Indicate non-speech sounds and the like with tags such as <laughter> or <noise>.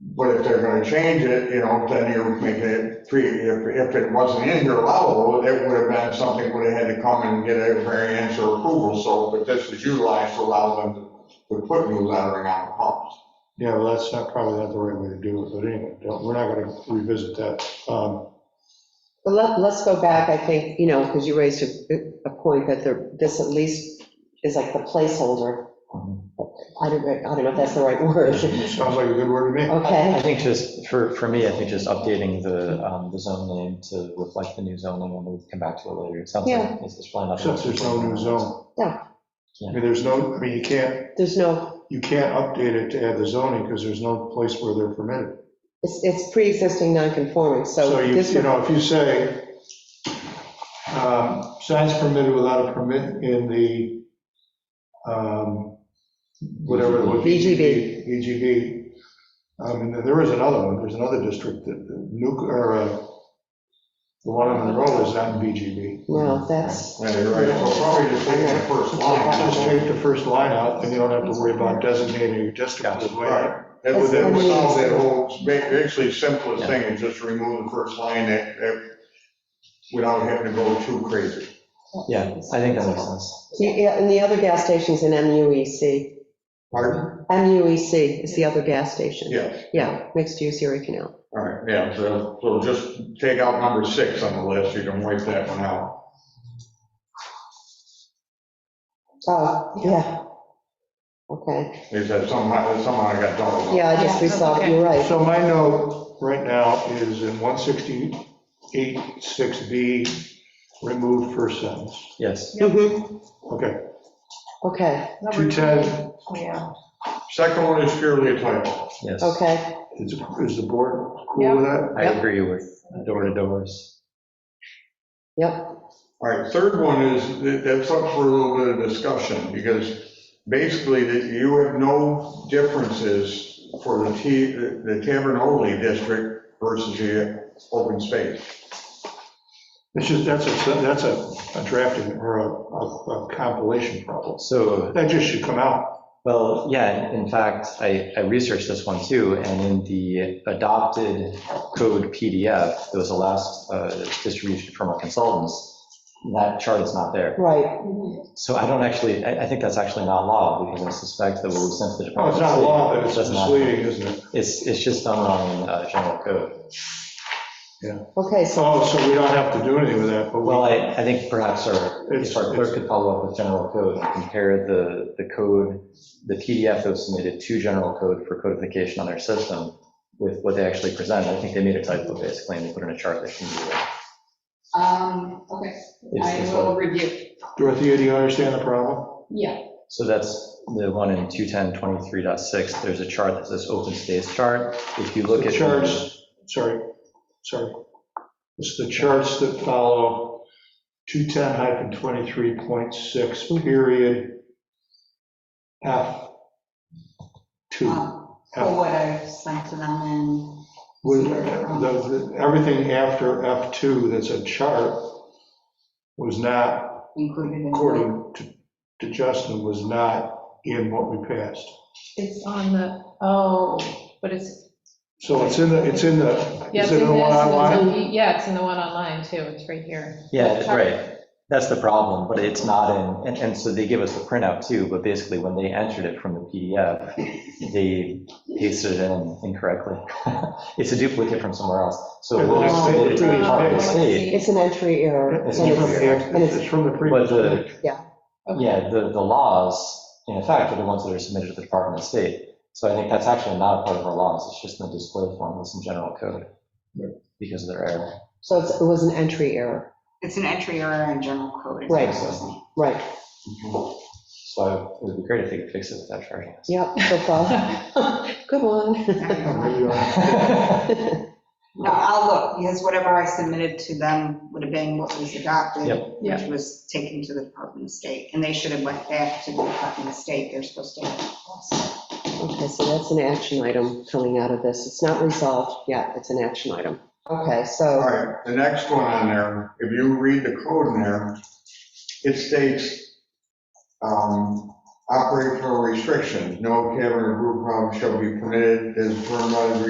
But if they're gonna change it, you know, then you're making it three, if, if it wasn't in your level, it would have been something would have had to come and get a variance or approval, so, but this is utilized to allow them to to put new lettering on the pumps. Yeah, well, that's not, probably not the right way to do it, but anyway, don't- we're not going to revisit that. Um, Well, let, let's go back, I think, you know, because you raised a, a point that there, this at least is like the placeholder. I don't, I don't know if that's the right word, Sounds like a good word to me. I okay? think just, for, for me, I think just updating the, um, the zone name to reflect the new zoning, and we'll come back to it later. It sounds Yeah. like it's it's probably not. Since there's no new zone. Yeah. I mean, there's no, I mean, you can't, There's no, you can't update it to add the zoning because there's no place where they're permitted. it's, it's pre-existing non-conforming, so So you, this you would, know, if you say, um, signs permitted without a permit in the, um, whatever. it was, VGB. VGB. Um, and there is another one, there's another district that, that Nuke, or, uh, the one on Monroe is not in VGB. no, that's, Yeah, you're right, so probably just taking the first Just line. take the first line out, and you don't have to worry about designating your district as well. Right. That would, that would solve that whole, ba- actually simplest thing, is just remove the first line that, that, without having to go too crazy. Yeah, I think that makes sense. yeah, and the other gas station's in E MUEC. Pardon? MUEC E is the other gas station. Yeah, Yeah, mixed use Erie Canal. all right, yeah, so, so just take out number six on the list, you can wipe that one out. Oh, yeah. Okay, Is that somehow, somehow I got doubled up. yeah, I just, we saw, it, you're right. So my note right now is in 168.6B, remove first sentence. Yes, Mhm, Okay, Okay, Number two, 210 Yeah, Second one is purely a typo. yes. okay. is, is the board cool with that? I agree with door to doors. Yep, All right, third one is, that- that's up for a little bit of discussion, because basically, that you have no differences for the T, the Tavern Only District versus the open space. It's just, that's a, that's a a drafting or a- a a compilation problem. So, That just should come out. well, yeah, in fact, I, I researched this one too, and in the adopted code PDF, that was the last uh, distribution from our consultants, that chart is not there. right, So I don't actually, I, I think that's actually not law, because I suspect that what we sent to the Oh, Department. it's not a of law, but it's Doesn't matter. misleading, isn't it? State, It's, it's just done wrong in uh, general code. okay, so, Oh, so we don't have to do anything with that, but Well, we, I, I think perhaps our, if our clerk could follow up with general code and compare the, the code, the PDF that was submitted to general code for codification on their system with what they actually presented. I think they made a typo basically, and they put in a chart that shouldn't be there. um, okay, I It's- will it's- review, Dorothea, do you understand the problem? yeah, So that's the one in 210.23.6. There's a chart that says open space chart. If you look The at. charts, sorry, sorry. It's the charts that follow 210-23.6 period Ah, F2. um, for what I sent to them and. With, the, the- everything after F2 that's a chart was not, Included in. according to, to Justin, was not in what we passed. It's on the, oh, but it's, So it's in the, it's in the, yeah, is it's it in in the one this, and online? it's on- yeah, it's in the one online too, it's right here. Yeah, it- right. That's the problem, but it's not in, and, and so they give us the printout too, but basically when they entered it from the PDF, they pasted it in incorrectly. <laughs> It's a duplicate from somewhere else. So Yeah, we'll but just submit it it's- to the Department Uh, of it's- State. it's an entry error. It's and from it's- the- it's from the But previous. the, Okay. yeah, the, the laws, in effect, are the ones that are submitted to the Department of State. So I think that's actually not a part of our laws. It's just in the display form, it's in general code because of their error. So it's- it was an entry error, It's an entry error in general code. is what Right. it's saying. right, So it would be great if they could fix it without charging <laughs> us. yep, so far. <laughs> Good one. <laughs> There you go. No, I'll look, because whatever I submitted to them would have been what was adopted, Yep. which was taken to the Department of State, and they should have went back to the Department of State, they're supposed to. have- Okay, so that's an action item coming out of this. It's not resolved yet, it's an action item. Okay, All so, right, the next one on there, if you read the code in there, it states, um, operational restrictions, no cavern or group home shall be permitted as permitted